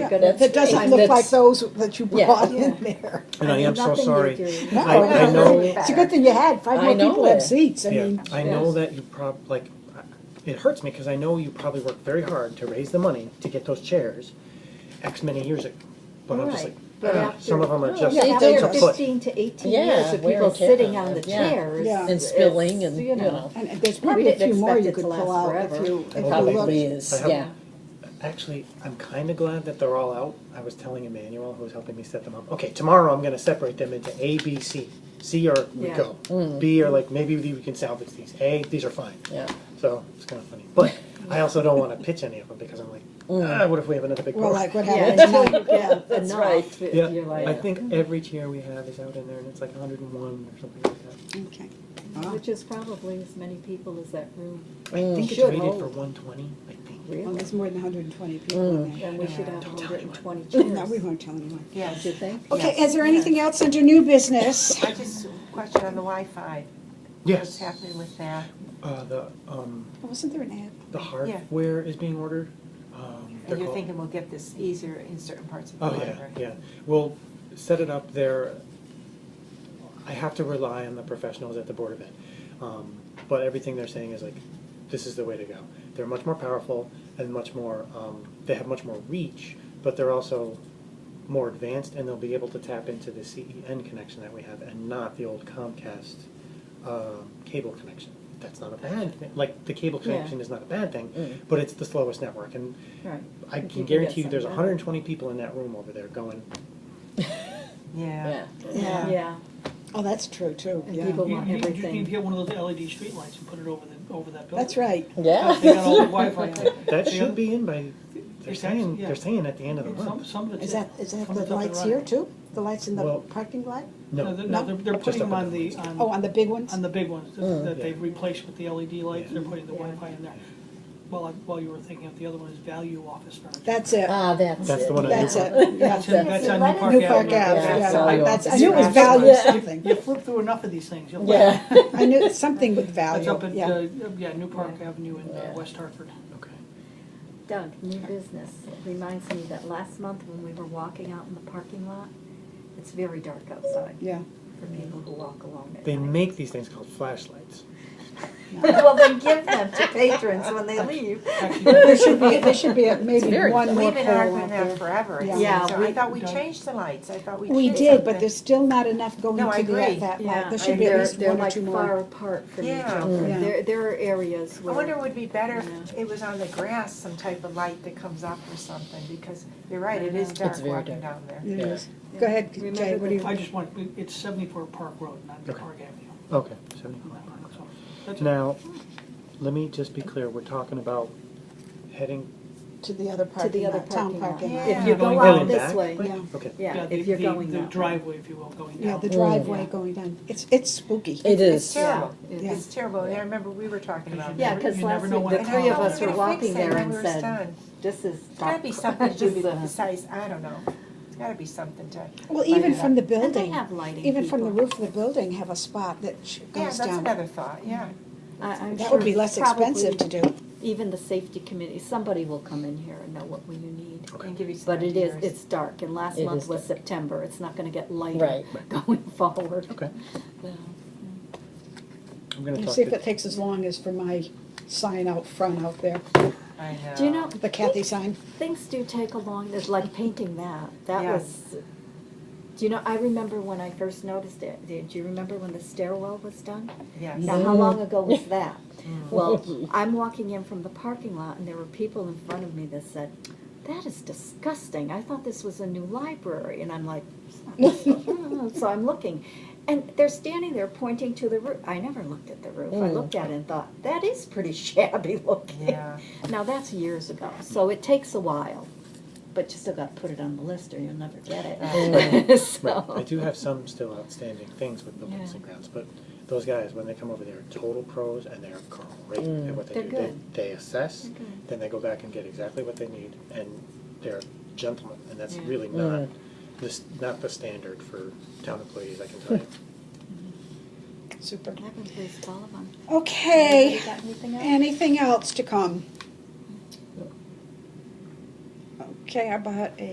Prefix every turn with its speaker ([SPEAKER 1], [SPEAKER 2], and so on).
[SPEAKER 1] That
[SPEAKER 2] cabinets.
[SPEAKER 1] doesn't
[SPEAKER 2] and
[SPEAKER 1] look like
[SPEAKER 2] that's-
[SPEAKER 1] those that you
[SPEAKER 2] Yeah.
[SPEAKER 1] brought in there.
[SPEAKER 3] And I am so
[SPEAKER 4] Nothing you
[SPEAKER 3] sorry.
[SPEAKER 4] do.
[SPEAKER 1] No,
[SPEAKER 3] I- I
[SPEAKER 1] no,
[SPEAKER 3] know-
[SPEAKER 1] It's a good thing you had, five
[SPEAKER 2] I
[SPEAKER 1] more
[SPEAKER 2] know
[SPEAKER 1] people have
[SPEAKER 2] it.
[SPEAKER 1] seats, I
[SPEAKER 3] Yeah,
[SPEAKER 1] mean,
[SPEAKER 3] I know that you prob, like, it hurts me because I know you probably worked very hard to raise the money to get those chairs X many years ago. But I'm just like,
[SPEAKER 4] Right, but
[SPEAKER 3] ah,
[SPEAKER 4] after-
[SPEAKER 3] some of them are just,
[SPEAKER 1] yeah,
[SPEAKER 3] it's
[SPEAKER 4] After
[SPEAKER 3] a foot.
[SPEAKER 4] fifteen to eighteen
[SPEAKER 2] Yeah,
[SPEAKER 4] years of
[SPEAKER 2] wear
[SPEAKER 4] people
[SPEAKER 2] and tear
[SPEAKER 4] sitting
[SPEAKER 2] on
[SPEAKER 4] on the
[SPEAKER 2] it, yeah.
[SPEAKER 4] chairs.
[SPEAKER 1] Yeah.
[SPEAKER 2] And spilling and, you know,
[SPEAKER 1] and and there's
[SPEAKER 4] Well,
[SPEAKER 1] probably a
[SPEAKER 4] didn't
[SPEAKER 1] few more
[SPEAKER 4] expect
[SPEAKER 1] you
[SPEAKER 4] it to
[SPEAKER 1] could
[SPEAKER 4] last
[SPEAKER 1] pull out if
[SPEAKER 4] forever.
[SPEAKER 1] you, if you looked.
[SPEAKER 2] probably is,
[SPEAKER 3] I
[SPEAKER 2] yeah.
[SPEAKER 3] have- Actually, I'm kind of glad that they're all out. I was telling Emmanuel, who was helping me set them up, okay, tomorrow I'm gonna separate them into A, B, C. C or we
[SPEAKER 4] Yeah.
[SPEAKER 3] go. B or like, maybe we can salvage these. A, these are fine.
[SPEAKER 2] Yeah.
[SPEAKER 3] So it's kind of funny. But I also don't want to pitch any of them because I'm like, ah, what if we have another big
[SPEAKER 1] Well,
[SPEAKER 3] problem?
[SPEAKER 1] like what
[SPEAKER 4] Yeah,
[SPEAKER 1] happened
[SPEAKER 4] until
[SPEAKER 1] tonight,
[SPEAKER 4] you
[SPEAKER 1] yeah.
[SPEAKER 4] get
[SPEAKER 2] That's
[SPEAKER 4] enough,
[SPEAKER 2] right.
[SPEAKER 4] it-
[SPEAKER 3] Yeah,
[SPEAKER 4] you're
[SPEAKER 3] I
[SPEAKER 4] like,
[SPEAKER 5] "Oh."
[SPEAKER 3] think every chair we have is out in there, and it's like 101 or something like that.
[SPEAKER 1] Okay. Wow.
[SPEAKER 4] which is probably as many people as that room,
[SPEAKER 5] Oh.
[SPEAKER 3] I think it's
[SPEAKER 4] Should
[SPEAKER 3] rated
[SPEAKER 4] hold.
[SPEAKER 3] for 120. I think.
[SPEAKER 1] Well,
[SPEAKER 4] really.
[SPEAKER 1] there's more than hundred and twenty people in
[SPEAKER 4] And
[SPEAKER 1] there.
[SPEAKER 4] we should have
[SPEAKER 3] Don't tell
[SPEAKER 4] hundred and twenty
[SPEAKER 1] No, we
[SPEAKER 4] chairs,
[SPEAKER 1] won't tell anyone.
[SPEAKER 4] don't you think?
[SPEAKER 1] Okay, is there anything else under new business?
[SPEAKER 5] I just question on the Wi-Fi. What's
[SPEAKER 3] Yes.
[SPEAKER 5] happening with that?
[SPEAKER 3] Uh, the um,
[SPEAKER 1] Wasn't there an ad?
[SPEAKER 3] the hardware is being ordered. Um, they're
[SPEAKER 5] And you're
[SPEAKER 3] called-
[SPEAKER 5] thinking we'll get this easier in certain parts of the
[SPEAKER 3] Oh yeah,
[SPEAKER 5] library?
[SPEAKER 3] yeah. We'll set it up there. I have to rely on the professionals at the board of ed, um, but everything they're saying is like, this is the way to go. They're much more powerful and much more. Um, they have much more reach, but they're also more advanced, and they'll be able to tap into the CEN connection that we have, and not the old Comcast um cable connection. That's not a bad thing. Like the cable
[SPEAKER 4] Yeah.
[SPEAKER 3] connection is not a bad thing,
[SPEAKER 2] Mm.
[SPEAKER 3] but it's the slowest network, and
[SPEAKER 4] Right.
[SPEAKER 3] I
[SPEAKER 4] If you
[SPEAKER 3] can
[SPEAKER 4] can get
[SPEAKER 3] guarantee you, there's
[SPEAKER 4] something.
[SPEAKER 3] 120 people in that room over there going,
[SPEAKER 5] Yeah.
[SPEAKER 2] yeah.
[SPEAKER 1] Yeah.
[SPEAKER 4] Yeah,
[SPEAKER 1] Oh, that's true too,
[SPEAKER 4] and
[SPEAKER 1] yeah.
[SPEAKER 4] people want
[SPEAKER 6] You- you- You need to
[SPEAKER 4] everything.
[SPEAKER 6] get one of those LED streetlights and put it over the, over that building.
[SPEAKER 1] That's right.
[SPEAKER 2] Yeah.
[SPEAKER 6] They got all the Wi-Fi on it.
[SPEAKER 3] That
[SPEAKER 6] Yeah.
[SPEAKER 3] should be in by, they're
[SPEAKER 6] It's
[SPEAKER 3] saying,
[SPEAKER 6] actually- yeah.
[SPEAKER 3] they're saying at the end of the
[SPEAKER 6] Some,
[SPEAKER 3] month.
[SPEAKER 6] some of it's.
[SPEAKER 1] Is that, is that
[SPEAKER 6] some of
[SPEAKER 1] the
[SPEAKER 6] it's up and
[SPEAKER 1] lights here
[SPEAKER 6] running.
[SPEAKER 1] too? The lights in the
[SPEAKER 3] Well-
[SPEAKER 1] parking lot?
[SPEAKER 6] No,
[SPEAKER 3] No,
[SPEAKER 6] they're,
[SPEAKER 1] No.
[SPEAKER 6] no, they're, they're
[SPEAKER 3] Just
[SPEAKER 6] putting
[SPEAKER 3] up
[SPEAKER 6] them on
[SPEAKER 3] and
[SPEAKER 6] the,
[SPEAKER 1] Oh,
[SPEAKER 6] on,
[SPEAKER 1] on the big ones?
[SPEAKER 6] um, on the big ones that- that
[SPEAKER 3] Yeah.
[SPEAKER 6] they've replaced with the LED lights, they're putting the
[SPEAKER 4] Yeah.
[SPEAKER 6] Wi-Fi in there. Well, I- while you were thinking of the other one is value office furniture.
[SPEAKER 1] That's it,
[SPEAKER 2] Ah, that's
[SPEAKER 3] That's
[SPEAKER 2] it.
[SPEAKER 3] the one I
[SPEAKER 1] that's
[SPEAKER 3] knew.
[SPEAKER 1] it. Yeah.
[SPEAKER 6] That's in, that's on
[SPEAKER 4] Why
[SPEAKER 6] New
[SPEAKER 4] don't
[SPEAKER 6] Park
[SPEAKER 1] New
[SPEAKER 6] Avenue.
[SPEAKER 1] Park Ave,
[SPEAKER 2] Yeah,
[SPEAKER 1] yeah,
[SPEAKER 2] value.
[SPEAKER 1] that's, I knew it was
[SPEAKER 2] Yeah.
[SPEAKER 1] value
[SPEAKER 2] Yeah.
[SPEAKER 1] something.
[SPEAKER 6] You flip through enough of these things, you'll.
[SPEAKER 2] Yeah.
[SPEAKER 1] I knew it's something with
[SPEAKER 6] That's
[SPEAKER 1] value,
[SPEAKER 6] up at,
[SPEAKER 1] yeah.
[SPEAKER 6] uh, yeah, New Park Avenue in uh,
[SPEAKER 2] Yeah.
[SPEAKER 6] West Hartford.
[SPEAKER 3] Okay.
[SPEAKER 4] Doug, new business, It reminds me that last month when we were walking out in the parking lot, it's very dark outside
[SPEAKER 1] Yeah.
[SPEAKER 4] for people who walk alone at
[SPEAKER 3] They
[SPEAKER 4] night.
[SPEAKER 3] make these things called flashlights.
[SPEAKER 4] Well, they give them to patrons when they leave.
[SPEAKER 1] There
[SPEAKER 6] Actually,
[SPEAKER 1] should be, there should be a- maybe
[SPEAKER 2] very
[SPEAKER 1] one more
[SPEAKER 5] We've been
[SPEAKER 1] pole out
[SPEAKER 5] arguing that
[SPEAKER 1] there.
[SPEAKER 5] forever. it
[SPEAKER 1] Yeah.
[SPEAKER 5] seems.
[SPEAKER 4] Yeah,
[SPEAKER 5] So
[SPEAKER 4] we-
[SPEAKER 5] I thought we changed the lights. I thought we
[SPEAKER 1] We
[SPEAKER 5] changed
[SPEAKER 1] did, but
[SPEAKER 5] something.
[SPEAKER 1] there's still not enough going
[SPEAKER 5] No, I
[SPEAKER 1] to the,
[SPEAKER 5] agree.
[SPEAKER 1] that
[SPEAKER 4] Yeah,
[SPEAKER 1] lot. There should be
[SPEAKER 4] they're-
[SPEAKER 1] at least one or two
[SPEAKER 4] They're like far
[SPEAKER 1] more.
[SPEAKER 4] apart from each
[SPEAKER 5] Yeah.
[SPEAKER 4] other.
[SPEAKER 1] Yeah.
[SPEAKER 4] There, there are areas
[SPEAKER 5] I
[SPEAKER 4] where.
[SPEAKER 5] wonder it would be better if
[SPEAKER 4] Yeah.
[SPEAKER 5] it was on the grass, some type of light that comes up or something, because you're right, it is
[SPEAKER 4] It's
[SPEAKER 5] dark
[SPEAKER 2] very
[SPEAKER 5] walking
[SPEAKER 2] dark.
[SPEAKER 5] down there.
[SPEAKER 1] It is. Go ahead, Jay,
[SPEAKER 4] Remember
[SPEAKER 1] what do
[SPEAKER 6] I
[SPEAKER 1] you,
[SPEAKER 6] just want, it's seventy-four Park Road, not New
[SPEAKER 3] Okay.
[SPEAKER 6] Park Avenue.
[SPEAKER 3] Okay, 75.
[SPEAKER 6] So, that's it.
[SPEAKER 3] Now, let me just be clear, we're talking about heading,
[SPEAKER 1] to the other
[SPEAKER 4] To the
[SPEAKER 1] parking
[SPEAKER 4] other
[SPEAKER 1] lot,
[SPEAKER 4] parking
[SPEAKER 1] town
[SPEAKER 4] lot.
[SPEAKER 1] parking lot.
[SPEAKER 5] Yeah.
[SPEAKER 4] If you
[SPEAKER 6] Going
[SPEAKER 4] go
[SPEAKER 3] in
[SPEAKER 4] out this
[SPEAKER 3] back?
[SPEAKER 4] way,
[SPEAKER 1] Yeah,
[SPEAKER 3] okay.
[SPEAKER 4] yeah,
[SPEAKER 6] the-
[SPEAKER 4] if you're
[SPEAKER 6] the-
[SPEAKER 4] going
[SPEAKER 6] The
[SPEAKER 4] that way.
[SPEAKER 6] driveway, if you will, going
[SPEAKER 1] yeah,
[SPEAKER 6] down.
[SPEAKER 1] the driveway going down. It's, it's spooky.
[SPEAKER 2] It
[SPEAKER 5] It's
[SPEAKER 2] is.
[SPEAKER 5] terrible.
[SPEAKER 4] Yeah.
[SPEAKER 5] It's terrible. And I remember we were talking about
[SPEAKER 4] Yeah,
[SPEAKER 5] that.
[SPEAKER 6] You
[SPEAKER 4] because
[SPEAKER 6] never
[SPEAKER 4] last
[SPEAKER 6] know
[SPEAKER 4] week,
[SPEAKER 6] when
[SPEAKER 4] the
[SPEAKER 6] it's
[SPEAKER 4] three of
[SPEAKER 6] gonna
[SPEAKER 4] us were
[SPEAKER 6] happen.
[SPEAKER 4] walking there and said,
[SPEAKER 5] It's
[SPEAKER 4] this is.
[SPEAKER 5] gotta be
[SPEAKER 4] dark."
[SPEAKER 5] something to
[SPEAKER 4] This
[SPEAKER 5] be
[SPEAKER 4] is, uh,
[SPEAKER 5] besides, I don't know. It's gotta be something to.
[SPEAKER 1] Well, even
[SPEAKER 4] Yeah.
[SPEAKER 1] from the
[SPEAKER 4] And they
[SPEAKER 1] building,
[SPEAKER 4] have lighting.
[SPEAKER 1] even from the
[SPEAKER 4] people.
[SPEAKER 1] roof of the building, have a spot that sh-
[SPEAKER 5] Yeah,
[SPEAKER 1] goes
[SPEAKER 5] that's
[SPEAKER 1] down.
[SPEAKER 5] another thought, yeah.
[SPEAKER 4] I- I'm
[SPEAKER 1] That would
[SPEAKER 4] sure
[SPEAKER 1] be less
[SPEAKER 4] probably
[SPEAKER 1] expensive to do.
[SPEAKER 4] Even the safety committee, somebody will come in here and know what we need.
[SPEAKER 5] And give you some
[SPEAKER 4] But it is,
[SPEAKER 5] ideas.
[SPEAKER 4] it's dark, and last
[SPEAKER 2] It
[SPEAKER 4] month
[SPEAKER 2] is
[SPEAKER 4] was
[SPEAKER 2] dark.
[SPEAKER 4] September, it's not gonna get lighter
[SPEAKER 2] Right.
[SPEAKER 4] going forward.
[SPEAKER 3] Okay.
[SPEAKER 4] Yeah.
[SPEAKER 3] I'm gonna
[SPEAKER 1] And
[SPEAKER 3] talk
[SPEAKER 1] See if it
[SPEAKER 3] to,
[SPEAKER 1] takes as long as for my sign out front out there,
[SPEAKER 5] I know.
[SPEAKER 4] Do you know,
[SPEAKER 1] the Kathy sign.
[SPEAKER 4] things do take a long, it's like painting that, that
[SPEAKER 5] Yeah.
[SPEAKER 4] was, do you know, I remember when I first noticed it, do do you remember when the stairwell was done?
[SPEAKER 5] Yes.
[SPEAKER 4] Now, how long ago was that? Well, I'm walking in from the parking lot and there were people in front of me that said, that is disgusting, I thought this was a new library, and I'm like, "It's not." so I'm looking. And they're standing there pointing to the roof, I never looked at the roof, I looked at it and thought, that is pretty shabby looking.
[SPEAKER 5] Yeah.
[SPEAKER 4] Now, that's years ago, so it takes a while, but you still got to put it on the list or you'll never get
[SPEAKER 5] Oh.
[SPEAKER 4] it.
[SPEAKER 3] right, I
[SPEAKER 4] So,
[SPEAKER 3] do have some still outstanding things with buildings
[SPEAKER 4] Yeah.
[SPEAKER 3] and grounds, but those guys, when they come over, they're total pros and they're great at what
[SPEAKER 4] Mm.
[SPEAKER 3] they
[SPEAKER 4] They're
[SPEAKER 3] do.
[SPEAKER 4] good.
[SPEAKER 3] They assess,
[SPEAKER 4] They're good.
[SPEAKER 3] then they go back and get exactly what they need, and they're gentlemen, and that's
[SPEAKER 4] Yeah. Mm.
[SPEAKER 3] really not, this, not the standard for town employees, I can tell you.
[SPEAKER 1] Super.
[SPEAKER 4] That was Liz Sullivan.
[SPEAKER 1] Okay,
[SPEAKER 4] Anybody got anything else?
[SPEAKER 1] anything else to come? Okay, I bought a